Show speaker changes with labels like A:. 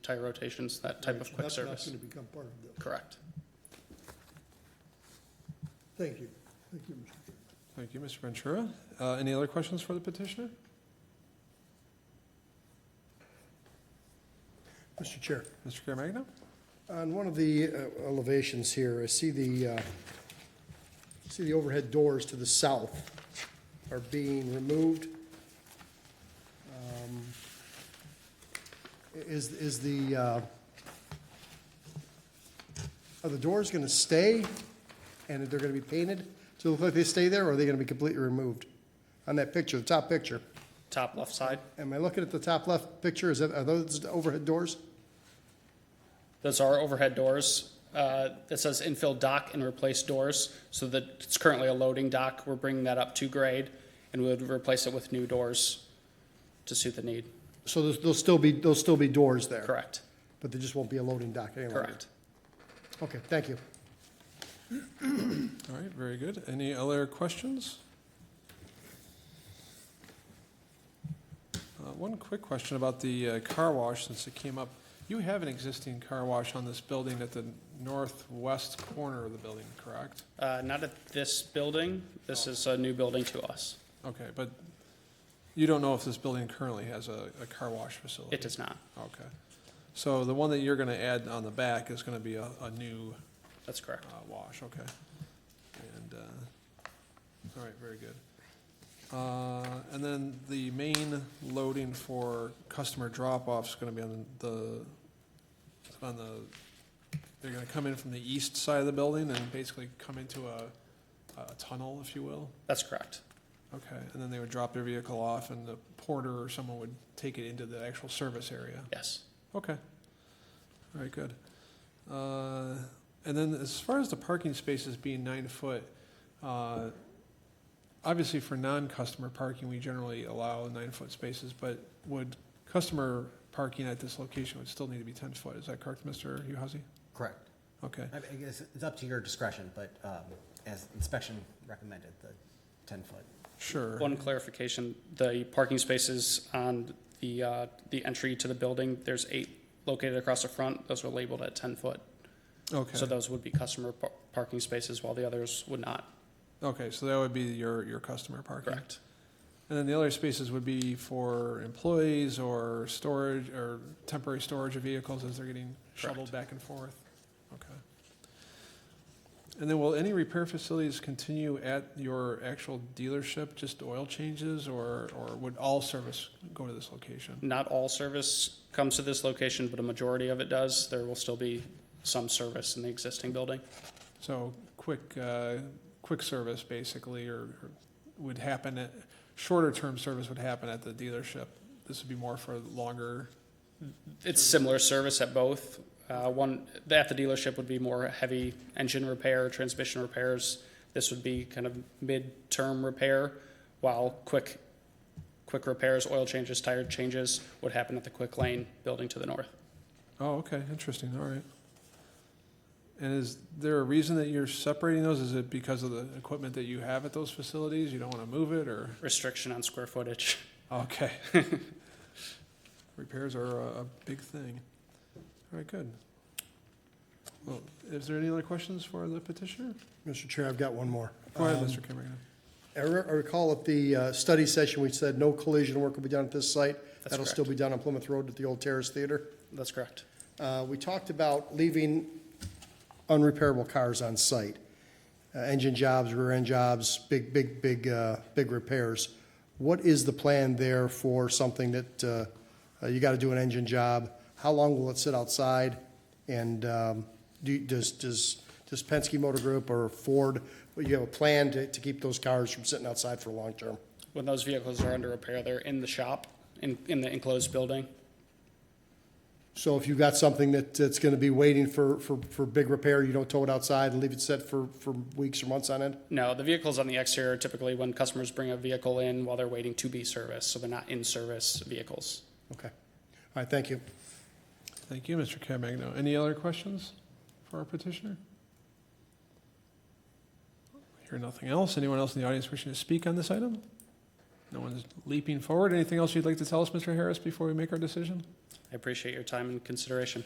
A: tire rotations, that type of quick
B: That's
A: service.
B: not going to become part of this.
A: Correct.
B: Thank you. Thank you, Mr. Chairman.
C: Thank you, Mr. Ventura. Uh, Any other questions for the petitioner?
D: Mr. Chair.
C: Mr. Caremagna?
D: On one of the uh, elevations here, I see the, uh, see the overhead doors to the south are being removed. Um, Is, is the, uh, are the doors going to stay and they're going to be painted to look like they stay there, or are they going to be completely removed? On that picture, the top picture,
A: Top left side,
D: am I looking at the top left picture, is that, are those the overhead doors?
A: those are overhead doors. Uh, It says infill dock and replace doors, so that it's currently a loading dock. We're bringing that up to grade, and we would replace it with new doors to suit the need.
D: So there's- there'll still be, there'll still be doors there?
A: Correct,
D: But there just won't be a loading dock any longer?
A: correct.
D: Okay, thank you.
C: All right, very good. Any other questions? Uh, One quick question about the uh, car wash, since it came up. You have an existing car wash on this building at the northwest corner of the building, correct?
A: Uh, Not at this building. This is a new building to us.
C: Okay, but you don't know if this building currently has a, a car wash facility?
A: It does not.
C: Okay. So the one that you're gonna add on the back is gonna be a, a new
A: That's correct.
C: Uh, wash, okay. And, uh, all right, very good. Uh, and then the main loading for customer drop-off is gonna be on the, on the, they're gonna come in from the east side of the building and basically come into a, a tunnel, if you will?
A: That's correct.
C: Okay, and then they would drop their vehicle off and the porter or someone would take it into the actual service area?
A: Yes.
C: Okay. All right, good. Uh, And then as far as the parking spaces being nine foot, uh, obviously for non-customer parking, we generally allow nine-foot spaces, but would customer parking at this location would still need to be 10 foot? Is that correct, Mr. Uhazy?
E: Correct.
C: Okay,
E: I mean, I guess it's up to your discretion, but um, as inspection recommended, the 10-foot.
C: sure.
A: One clarification, the parking spaces on the, uh, the entry to the building, there's eight located across the front. Those are labeled at 10-foot. So
C: Okay,
A: those would be customer par- parking spaces while the others would not.
C: okay, so that would be your, your customer parking?
A: Correct.
C: And then the other spaces would be for employees or storage, or temporary storage of vehicles as they're getting shuttled back and forth? Okay. And then will any repair facilities continue at your actual dealership, just oil changes, or, or would all service go to this location?
A: Not all service comes to this location, but a majority of it does. There will still be some service in the existing building.
C: So quick, uh, quick service basically, or or would happen at, shorter term service would happen at the dealership. This would be more for longer,
A: It's similar service at both. Uh, One, at the dealership would be more heavy engine repair, transmission repairs. This would be kind of mid-term repair, while quick, quick repairs, oil changes, tire changes would happen at the quick lane building to the north.
C: Oh, okay, interesting, all right. And is there a reason that you're separating those? Is it because of the equipment that you have at those facilities? You don't want to move it, or,
A: Restriction on square footage.
C: okay. Repairs are a, a big thing. All right, good. Well, is there any other questions for the petitioner?
D: Mr. Chair, I've got one more.
C: Go ahead,
D: Um,
C: Mr. Cameron.
D: I re- I recall at the uh, study session, we said no collision work will be done at this site.
A: That's
D: That'll still
A: correct.
D: be done on Plymouth Road at the old Terrace Theater.
A: That's correct.
D: Uh, We talked about leaving unrepairable cars on site, Uh, engine jobs, rear end jobs, big, big, big, uh, big repairs. What is the plan there for something that uh, uh, you got to do an engine job? How long will it sit outside? And um, do, does, does, does Penske Motor Group or Ford, well, you have a plan to, to keep those cars from sitting outside for long term?
A: When those vehicles are under repair, they're in the shop, in, in the enclosed building.
D: So if you've got something that, that's going to be waiting for, for, for big repair, you don't tow it outside and leave it set for, for weeks or months on end?
A: No, the vehicles on the exterior are typically when customers bring a vehicle in while they're waiting to be serviced, so they're not in-service vehicles.
D: Okay. All right, thank you.
C: Thank you, Mr. Caremagna. Any other questions for our petitioner? Hear nothing else. Anyone else in the audience wishing to speak on this item? No one's leaping forward. Anything else you'd like to tell us, Mr. Harris, before we make our decision?
A: I appreciate your time and consideration.